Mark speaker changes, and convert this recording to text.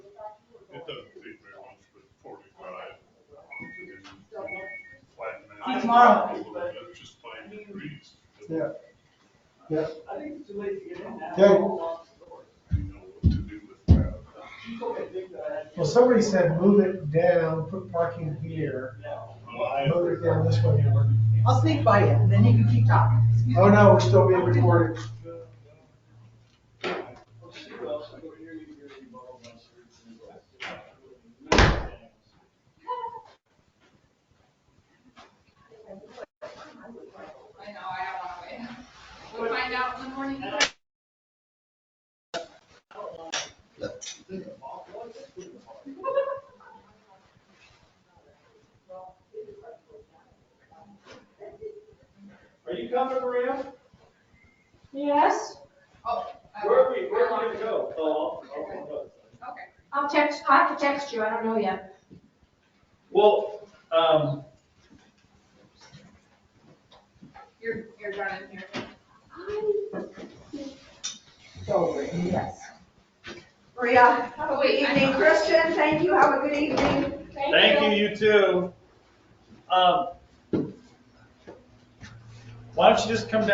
Speaker 1: tomorrow.
Speaker 2: Just playing the breeze.
Speaker 1: Yeah. Yeah.
Speaker 3: I think it's too late to get in now.
Speaker 1: Okay.
Speaker 2: You know what to do with that.
Speaker 3: You told me to think that I had to
Speaker 1: Well, somebody said move it down, put parking here,
Speaker 3: get out.
Speaker 2: Well, I-
Speaker 1: move it down this way. Amber.
Speaker 4: I'll sneak by you, and then you can keep talking. Excuse
Speaker 1: Oh,
Speaker 4: me.
Speaker 1: no, we're still being recorded.
Speaker 3: Well, she will, she'll go here, you can hear me, blah, blah, blah, she'll-
Speaker 5: I know, I don't want to wait. We'll find out in the morning.
Speaker 3: Are you coming, Maria?
Speaker 6: Yes,
Speaker 5: Oh. I-
Speaker 3: Where are we, where are we gonna go? Oh, I'll- I'll go.
Speaker 5: Okay.
Speaker 6: I'll text, I have to text you, I don't know yet.
Speaker 3: Well, um,
Speaker 5: You're, you're running here.
Speaker 4: So, yes.
Speaker 6: Maria,
Speaker 5: Have
Speaker 6: good evening, Christian, thank you, have a good evening.
Speaker 3: thank you, you too. Um, why don't you just come down